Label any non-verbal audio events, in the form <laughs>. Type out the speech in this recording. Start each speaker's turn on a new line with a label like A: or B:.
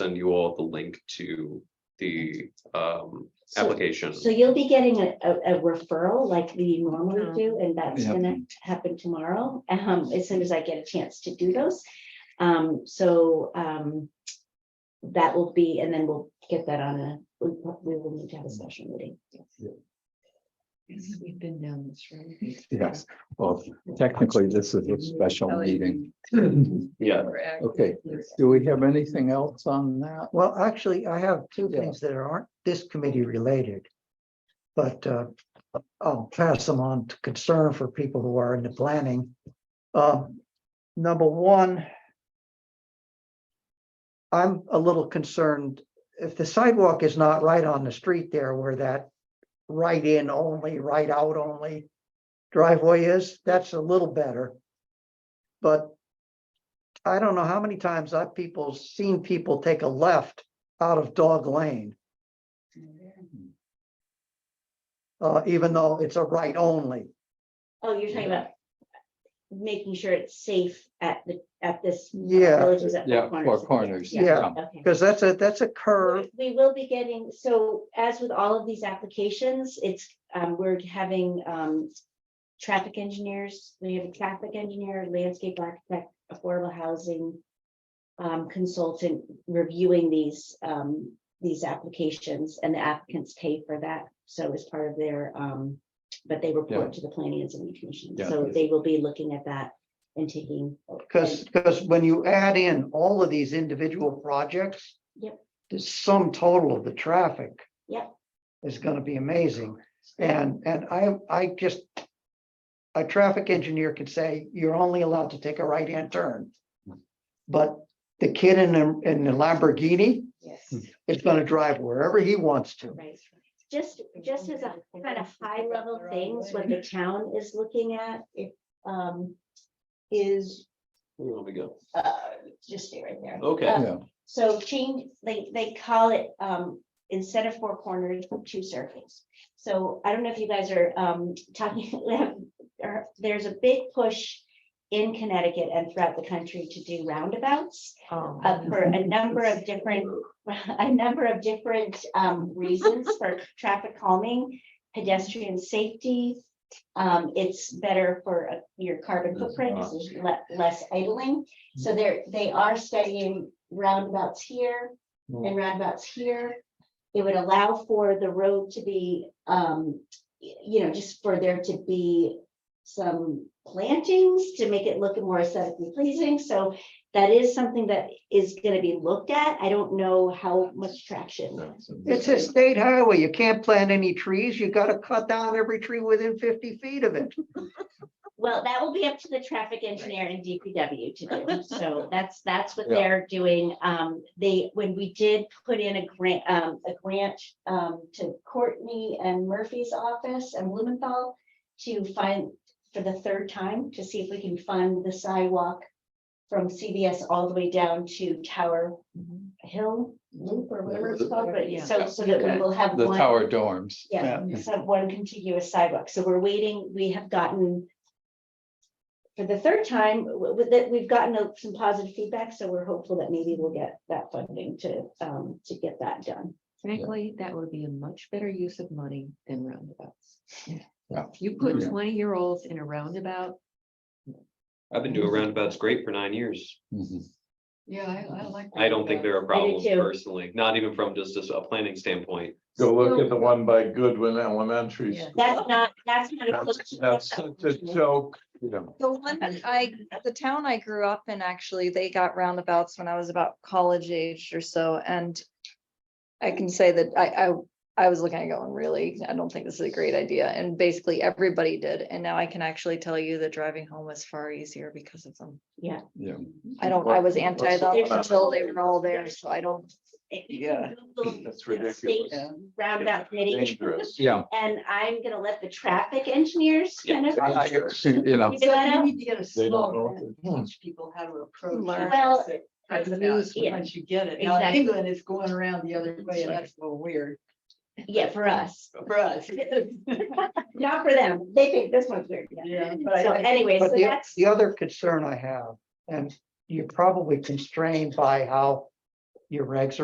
A: send you all the link to the um
B: So
A: application.
B: so you'll be getting a, a, a referral like we
C: Mm-hmm.
B: normally do, and that's
D: Yeah.
B: gonna happen tomorrow, um, as soon as I get a chance to do those. Um, so, um, that will be, and then we'll get that on a, we we will need to have a special meeting.
C: We've been down this road.
D: Yes, well, technically, this is a special meeting. Do
A: Yeah,
D: Okay. we have anything else on that?
E: Well, actually, I have two
D: Yeah.
E: things that aren't this committee related. But uh, I'll pass them on to concern for people who are into planning. Um, Number one. I'm a little concerned if the sidewalk is not right on the street there where that right in only, right out only driveway is, that's a little better. But I don't know how many times I've people, seen people take a left out of dog lane, uh, even though it's a right only.
B: Oh, you're talking about making sure it's safe at the, at this.
E: Yeah.
B: Villages at Four
D: Yeah, Four Corners, yeah.
B: Okay.
E: Because that's a, that's a curve.
B: We we will be getting, so as with all of these applications, it's, um, we're having, um. Traffic engineers, we have a traffic engineer, landscape architect, affordable housing. Um, consultant reviewing these, um, these applications and the applicants pay for that. So as part of their, um, but they report to the planning and zoning commission.
D: Yeah.
B: So they will be looking at that and taking.
E: Because, because when you add in all of these individual projects.
B: Yep.
E: The sum total of the traffic.
B: Yep.
E: Is gonna be amazing. And, and I, I just. A traffic engineer could say, you're only allowed to take a right-hand turn. But the kid in, the- in the Lamborghini
C: Yes.
E: is gonna drive wherever he wants to.
B: Right. Just, just as a kind of high level things, what the town is looking at, if, um, is,
A: there we go.
B: uh, just stay right there.
A: Okay,
B: Yeah.
D: Yeah,
B: So change, they, they call it, um, instead of four corners, two circles. So I don't know if you guys are, um, talking, <laughs> there- there's a big push in Connecticut and throughout the country to do roundabouts uh, for a number of different, <laughs> a number of different um, reasons for traffic calming, pedestrian safety. Um, It's better for uh, your carbon footprint, 'cause there's le- less idling. So they're, they are studying roundabouts here and roundabouts here. It would allow for the road to be, um, y- you know, just for there to be some plantings to make it look more aesthetically pleasing. So that is something that is gonna be looked at. I don't know how much traction.
E: It's a state highway. You can't plant any trees. You gotta cut down every tree within fifty feet of it.
B: Well, that will be up to the traffic engineer and DPW to do. So that's, that's what
D: Yeah.
B: they're doing. Um, they, when we did put in a grant, um, a grant, um, to Courtney and Murphy's office and Blumenthal to find, for the third time, to see if we can fund the sidewalk from CVS all the way down to Tower Hill Loop or whatever it's called, but
C: Yeah.
B: so, so that we will have
D: the
B: one.
D: tower dorms.
B: Yeah, so one contiguous sidewalk. So we're waiting, we have gotten. For the third time, w- with that, we've gotten uh, some positive feedback, so we're hopeful that maybe we'll get that funding to, um, to get that done.
C: Frankly, that would be a much better use of money than roundabouts.
D: Yeah.
C: If you put
D: Yeah.
C: twenty-year-olds in a roundabout.
A: I've been doing
B: Mhm.
A: roundabouts great for nine years.
D: Mhm.
C: Yeah, I, I like.
A: I don't think there are problems
B: too.
A: personally, not even from just a a planning standpoint.
F: Go look at the one by Goodwin Elementary.
C: Yeah.
F: School.
B: That's not, that's not. a
F: That's that's such a joke.
G: The one that I, the town I grew up in, actually, they got roundabouts when I was about college age or so, and I can say that I, I, I was looking at it going, really, I don't think this is a great idea, and basically everybody did, and now I can actually tell you that driving home was far easier because of them.
D: Yeah.
G: I don't, I was
F: Well,
G: anti them
B: there's-
G: until they were all there, so I don't.
B: Yeah.
F: That's ridiculous.
B: Roundabout committee,
F: Dangerous.
D: Yeah.
B: and I'm gonna let the traffic engineers kind of.
D: I- I- see, You know,
B: figure that out.
H: need to get a
F: They don't know Hmm.
H: slogan
F: what
H: and teach people how to approach.
G: Learn.
H: it.
B: Well,
H: Because
B: it's
H: it is
B: about- yeah.
H: Once you get it. Now, in
B: Exactly.
H: England is going around the other way and that's a little weird
B: Yeah, for us, <laughs>
H: for us. <laughs>
B: not for them. They think this one's weird. yeah.
H: Yeah, but
B: So
H: I-
B: anyway, so
E: But the,
B: that's.
E: the other concern I have, and you're probably constrained by how your regs